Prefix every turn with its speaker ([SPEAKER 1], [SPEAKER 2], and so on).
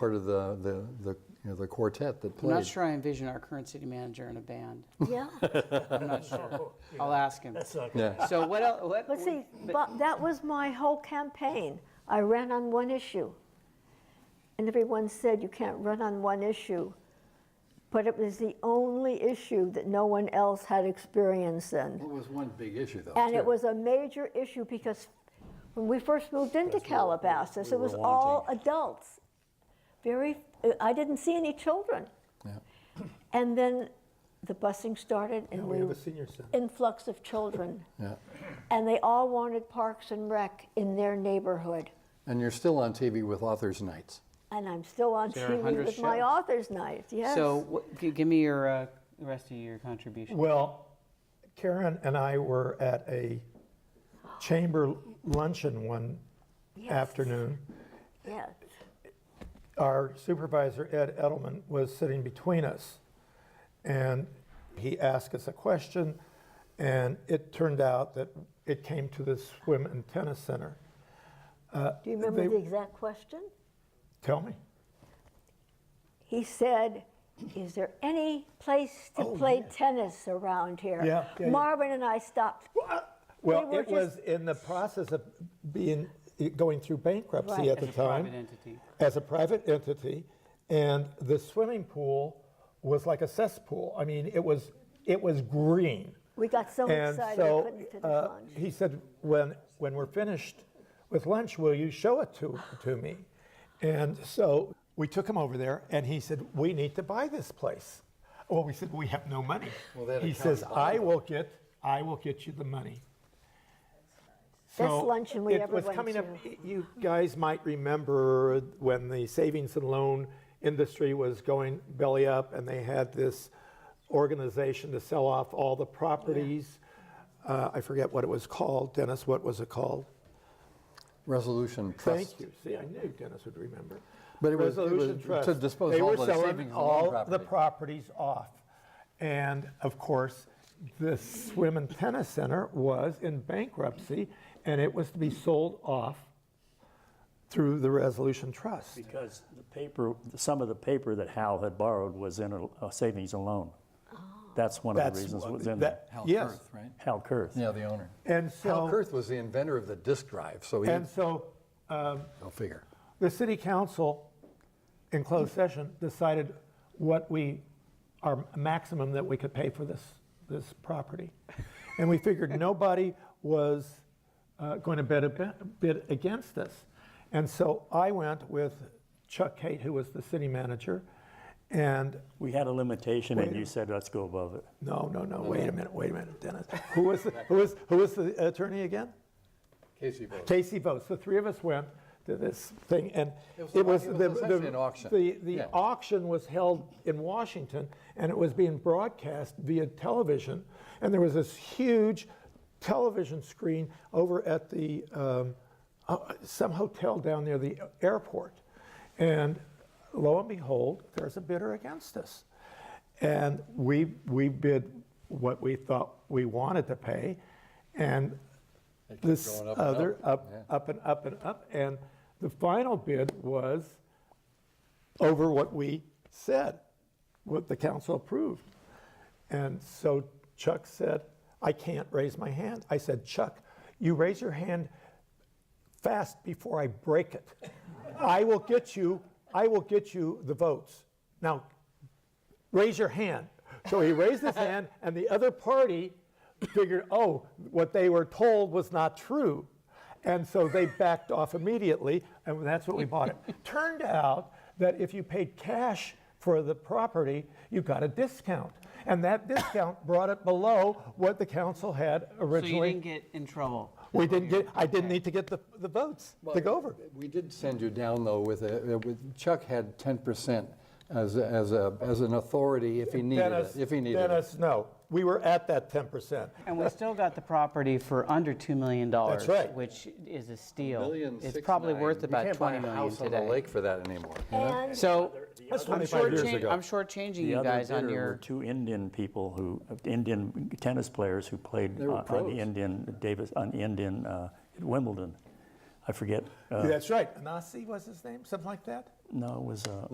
[SPEAKER 1] part of the, the, the, you know, the quartet that
[SPEAKER 2] I'm
[SPEAKER 1] played.
[SPEAKER 2] not sure I envision our current city manager in a band.
[SPEAKER 3] Yeah,
[SPEAKER 2] I'm not sure. I'll ask him.
[SPEAKER 4] That's not
[SPEAKER 1] Yeah.
[SPEAKER 2] So what else, what?
[SPEAKER 3] but see, but that was my whole campaign. I ran on one issue. And everyone said you can't run on one issue. But it was the only issue that no one else had experience in.
[SPEAKER 1] It was one big issue though.
[SPEAKER 3] And it
[SPEAKER 1] too.
[SPEAKER 3] was a major issue because when we first moved into Calabasas,
[SPEAKER 1] we
[SPEAKER 3] it was
[SPEAKER 1] were
[SPEAKER 3] all adults. Very, I didn't see any children.
[SPEAKER 1] Yeah.
[SPEAKER 3] And then the busing started and
[SPEAKER 4] We
[SPEAKER 3] we,
[SPEAKER 4] have a senior center.
[SPEAKER 3] influx of children.
[SPEAKER 1] Yeah.
[SPEAKER 3] And they all wanted Parks and Rec in their neighborhood.
[SPEAKER 1] And you're still on TV with Authors Nights.
[SPEAKER 3] And I'm still on
[SPEAKER 2] Sarah
[SPEAKER 3] TV
[SPEAKER 2] Hunter's
[SPEAKER 3] with my
[SPEAKER 2] show.
[SPEAKER 3] author's night, yes.
[SPEAKER 2] So what- gi- give me your, uh, the rest of your contribution.
[SPEAKER 4] Well, Karen and I were at a chamber luncheon one
[SPEAKER 3] Yes.
[SPEAKER 4] afternoon.
[SPEAKER 3] Yes,
[SPEAKER 4] Our supervisor, Ed Edelman, was sitting between us. And he asked us a question, and it turned out that it came to the swim and tennis center.
[SPEAKER 3] do you remember
[SPEAKER 4] They-
[SPEAKER 3] the exact question?
[SPEAKER 4] Tell me.
[SPEAKER 3] He said, is there any place to
[SPEAKER 4] Oh,
[SPEAKER 3] play
[SPEAKER 4] yeah.
[SPEAKER 3] tennis around here?
[SPEAKER 4] Yeah, yeah, yeah.
[SPEAKER 3] Marvin and I stopped.
[SPEAKER 4] Well,
[SPEAKER 3] were
[SPEAKER 4] it was in the process of being, going through bankruptcy
[SPEAKER 3] Right.
[SPEAKER 4] at the
[SPEAKER 2] As a private
[SPEAKER 4] time.
[SPEAKER 2] entity.
[SPEAKER 4] As a private entity, and the swimming pool was like a cesspool. I mean, it was, it was green.
[SPEAKER 3] We got so
[SPEAKER 4] And
[SPEAKER 3] excited, we
[SPEAKER 4] so,
[SPEAKER 3] couldn't finish
[SPEAKER 4] uh,
[SPEAKER 3] lunch.
[SPEAKER 4] he said, when, when we're finished with lunch, will you show it to, to me? And so we took him over there, and he said, we need to buy this place. Well, we said, we have no money.
[SPEAKER 1] Well, they had a
[SPEAKER 4] He
[SPEAKER 1] county
[SPEAKER 4] says,
[SPEAKER 1] bond.
[SPEAKER 4] I will get, I will get you the money.
[SPEAKER 3] Best
[SPEAKER 4] So
[SPEAKER 3] luncheon we
[SPEAKER 4] it
[SPEAKER 3] ever
[SPEAKER 4] was
[SPEAKER 3] went
[SPEAKER 4] coming up-
[SPEAKER 3] to.
[SPEAKER 4] y- You guys might remember when the savings and loan industry was going belly up, and they had this organization to sell off all the properties. Uh, I forget what it was called, Dennis. What was it called?
[SPEAKER 1] Resolution Trust.
[SPEAKER 4] Thank you. See, I knew Dennis would remember.
[SPEAKER 1] But it was- it
[SPEAKER 4] Resolution
[SPEAKER 1] was
[SPEAKER 4] Trust.
[SPEAKER 1] to dispose
[SPEAKER 4] they
[SPEAKER 1] all
[SPEAKER 4] were
[SPEAKER 1] the
[SPEAKER 4] selling
[SPEAKER 1] savings and loan
[SPEAKER 4] all the
[SPEAKER 1] property.
[SPEAKER 4] properties off, and of course, the swim and tennis center was in bankruptcy, and it was to be sold off through the Resolution Trust.
[SPEAKER 5] Because the paper, some of the paper that Hal had borrowed was in a- a savings and loan.
[SPEAKER 2] Oh.
[SPEAKER 5] That's one of the
[SPEAKER 4] That's
[SPEAKER 5] reasons
[SPEAKER 4] what-
[SPEAKER 5] it was in there.
[SPEAKER 4] that-
[SPEAKER 1] Hal
[SPEAKER 4] Yes,
[SPEAKER 1] Kurth, right?
[SPEAKER 5] Hal Kurth.
[SPEAKER 1] Yeah, the owner.
[SPEAKER 4] and
[SPEAKER 1] Hal
[SPEAKER 4] so,
[SPEAKER 1] Kurth was the inventor of the disk drive, so he,
[SPEAKER 4] and so,
[SPEAKER 1] I'll figure.
[SPEAKER 4] the city council, in closed session, decided what we, our maximum that we could pay for this, this property. And we figured nobody was uh, going to bid, ab- bid against us. And so I went with Chuck Kate, who was the city manager, and,
[SPEAKER 5] We had a limitation and you said, let's go above it.
[SPEAKER 4] no, no, no, wait a minute, wait a minute, Dennis. Who was, the- who was, who was the attorney again?
[SPEAKER 1] Casey Bowes.
[SPEAKER 4] Casey votes. The three of us went to this thing, and
[SPEAKER 1] It was
[SPEAKER 4] it
[SPEAKER 1] a-
[SPEAKER 4] was,
[SPEAKER 1] it was
[SPEAKER 4] the,
[SPEAKER 1] essentially
[SPEAKER 4] the,
[SPEAKER 1] an auction.
[SPEAKER 4] The, the
[SPEAKER 1] Yeah.
[SPEAKER 4] auction was held in Washington, and it was being broadcast via television. And there was this huge television screen over at the um, uh, some hotel down near the airport, and lo and behold, there's a bidder against us, and we we bid what we thought we wanted to pay, and
[SPEAKER 1] kept
[SPEAKER 4] this
[SPEAKER 1] going up and
[SPEAKER 4] other,
[SPEAKER 1] up,
[SPEAKER 4] up,
[SPEAKER 1] yeah.
[SPEAKER 4] up and up and up. And the final bid was over what we said, what the council approved. And so Chuck said, I can't raise my hand. I said, Chuck, you raise your hand fast before I break it. I will get you, I will get you the votes. Now, raise your hand. So he raised his hand, and the other party figured, oh, what they were told was not true. And so they backed off immediately, and that's what we bought it. Turned out that if you paid cash for the property, you got a discount. And that discount brought it below what the council had
[SPEAKER 2] So you
[SPEAKER 4] originally.
[SPEAKER 2] didn't get in trouble.
[SPEAKER 4] we didn't get, I didn't need to get the, the votes to go over.
[SPEAKER 1] We did send you down though with, a- with Chuck had 10% as, a- as a, as an authority if he needed it,
[SPEAKER 4] Dennis,
[SPEAKER 1] if he needed it.
[SPEAKER 4] Dennis, no. We were at that 10%.
[SPEAKER 2] And we still got the property for under $2 million.
[SPEAKER 4] That's right.
[SPEAKER 2] Which is a steal.
[SPEAKER 1] Million
[SPEAKER 2] It's
[SPEAKER 1] six
[SPEAKER 2] probably
[SPEAKER 1] nine.
[SPEAKER 2] worth about 20
[SPEAKER 1] You can't buy a
[SPEAKER 2] million
[SPEAKER 1] house on the
[SPEAKER 2] today.
[SPEAKER 1] lake for that anymore. you know?
[SPEAKER 3] And
[SPEAKER 2] So
[SPEAKER 4] That's
[SPEAKER 2] I'm
[SPEAKER 4] 25 years
[SPEAKER 2] shortchan-
[SPEAKER 4] ago.
[SPEAKER 2] I'm shortchanging
[SPEAKER 5] The
[SPEAKER 2] you
[SPEAKER 5] other
[SPEAKER 2] guys on
[SPEAKER 5] bidder were
[SPEAKER 2] your,
[SPEAKER 5] Two Indian people who, Indian tennis players who played
[SPEAKER 1] were
[SPEAKER 5] on-
[SPEAKER 1] pros.
[SPEAKER 5] on Indian Davis, on Indian uh, at Wimbledon. I I forget. Uh,
[SPEAKER 4] That's right. Anasi was his name, something like that?
[SPEAKER 5] no, it was uh,